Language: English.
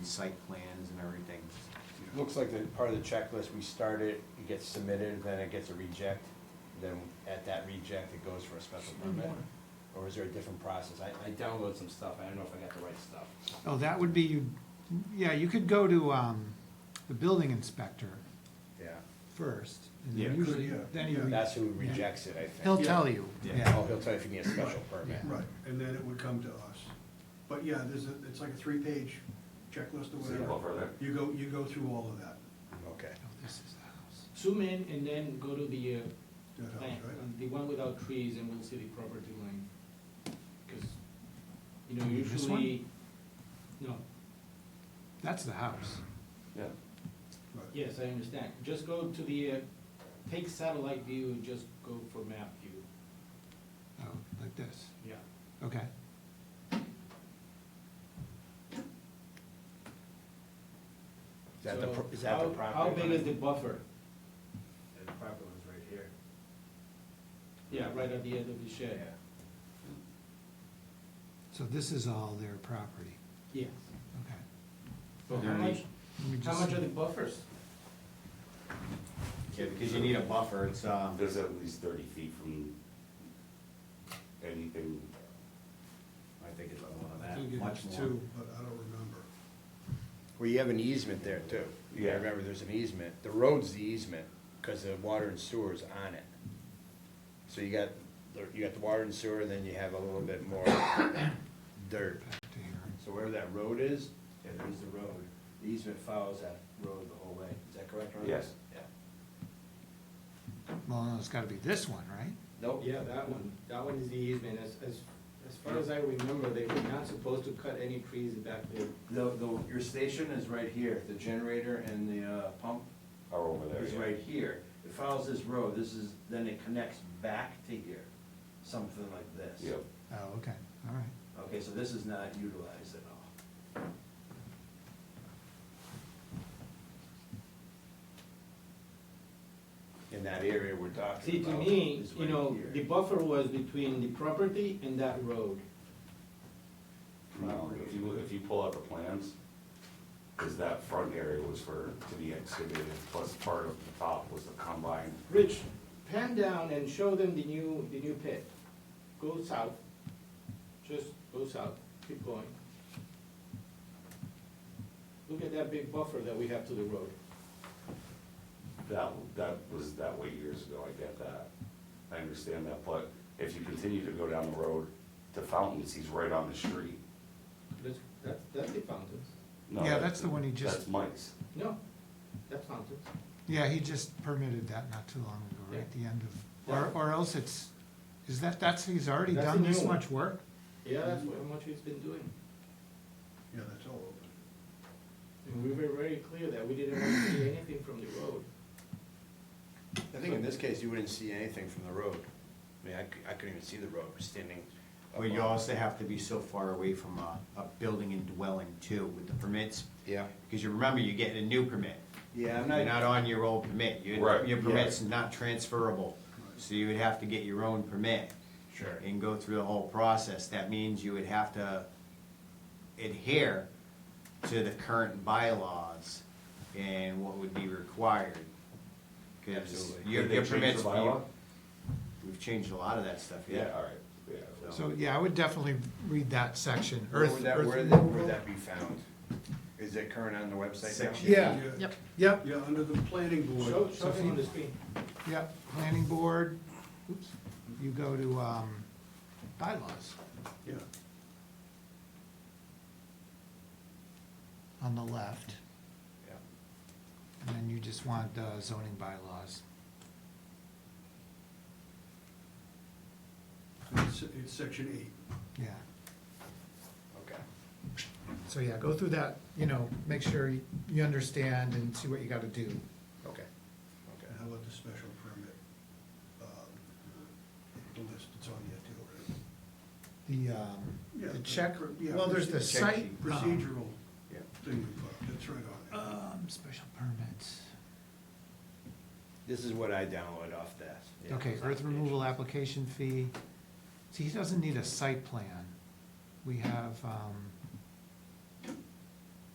site plans and everything. you know. Looks like the part of the checklist, we start it, it gets submitted, then it gets a reject, then at that reject, it goes for a special permit? Or is there a different process? I, I downloaded some stuff, I don't know if I got the right stuff. Oh, that would be, you. yeah, you could go to um, the building inspector Yeah. first. and Yeah. then usually- Usually, yeah, Then you, yeah. re- That's who rejects it, I think. he'll tell you, Yeah. Oh, yeah. he'll tell you if you need a special permit. Right, and then it would come to us. But yeah, there's a, it's like a three-page checklist or So you whatever. go over there? You go, you go through all of that, Okay. Oh, this is the house. Zoom in and then go to the, uh, that plan, helps, right? um, the one without trees and we'll see the property line. Cause, you know, You mean this one? usually, no, That's the house. Yeah, Right. yes, I understand. Just go to the, uh, take satellite view, and just go for map view. Oh, like this, Yeah. okay. Is that the, So pro- is that the how- property? How big line? is the buffer? The proper one's right here. Yeah, right at the end of the shed. So this is all their property, Yeah. okay. So how There much, is- Let me how just much see. are the buffers? Yeah, because you need a buffer, it's, um, there's at least thirty feet from anything. I think it's one of I think that, it much is more. two. But I don't remember. Well, you have an easement there too. I Yeah. remember there's an easement. The road's the easement, because the water and sewer is on it. So you got, you got the water and sewer, then you have a little bit more dirt. Back to here. So wherever that road is, Yeah, there's the road. The easement follows that road the whole way. Is that correct, Ron? Yes. Yeah. Well, no, it's gotta be this one, right? Nope. Yeah, that one, that one is the easement, as, as, as far as I remember, they were not supposed to cut any trees back there. The, the, your station is right here. The generator and the uh, pump Are over there, is yeah. right here. It follows this road. This is, then it connects back to here, something like this. Yep, Oh, okay, all right. Okay, so this is not utilized at all. in that area we're talking See, to about. me, is you right know, here. the buffer was between the property and that road. no, if you, if you pull out the plans, is that front area was for, to be excavated, plus part of the top was the combine. Rich, pan down and show them the new, the new pit. Go south, just go south, keep going. Look at that big buffer that we have to the road. That, that was that way years ago, I get that, I understand that, but if you continue to go down the road to Fountains, he's right on the street. That's, that's, that's the fountains. No, Yeah, that- that's the one he just- That's Mike's, No, that's fountains. Yeah, he just permitted that not too long ago, right at the end of, or, Yeah. or else it's, is that, that's, he's already That's a done new this one. much work? Yeah, that's what, how much he's been doing. Yeah, that's all open. And we were very clear that we didn't want to see anything from the road. I think in this case, you wouldn't see anything from the road. I mean, I cou- I couldn't even see the road, we're standing. But you above. also have to be so far away from a, a building and dwelling too with the permits, Yeah. because you remember, you're getting a new permit. Yeah, I'm You're not, not on your old permit, your, Right, your yeah. permit's not transferable, so you would have to get your own permit. Sure. And go through the whole process, that means you would have to adhere to the current bylaws and what would be required. Cause Absolutely. your, Did they your change the permits, bylaw? we've changed a lot of that stuff, yeah, yeah. all right, yeah. So, yeah, I would definitely read that section. Where Earth- would that, earth where that, removal. where that be found? Is it current on the website now? Section. Yeah, Yep. yep, Yeah, under the planning Show, board, show him on the screen. yep, planning board, oops, you go to, um, bylaws yeah, on the left, Yeah. and then you just want uh, zoning bylaws. it's, it's section eight. Yeah, Okay. so yeah, go through that, you know, make sure you- you understand and see what you gotta do. Okay. And how about the special permit? um, The list, it's on there too. The, um, Yeah, the the check, pr- yeah, well, there's the proce- check site. sheet. um, Procedural Yeah. thing, we put, that's right on it. Um, special permits. This is what I downloaded off that. yeah. Okay, earth removal application fee. See, he doesn't need a site plan. We have, um,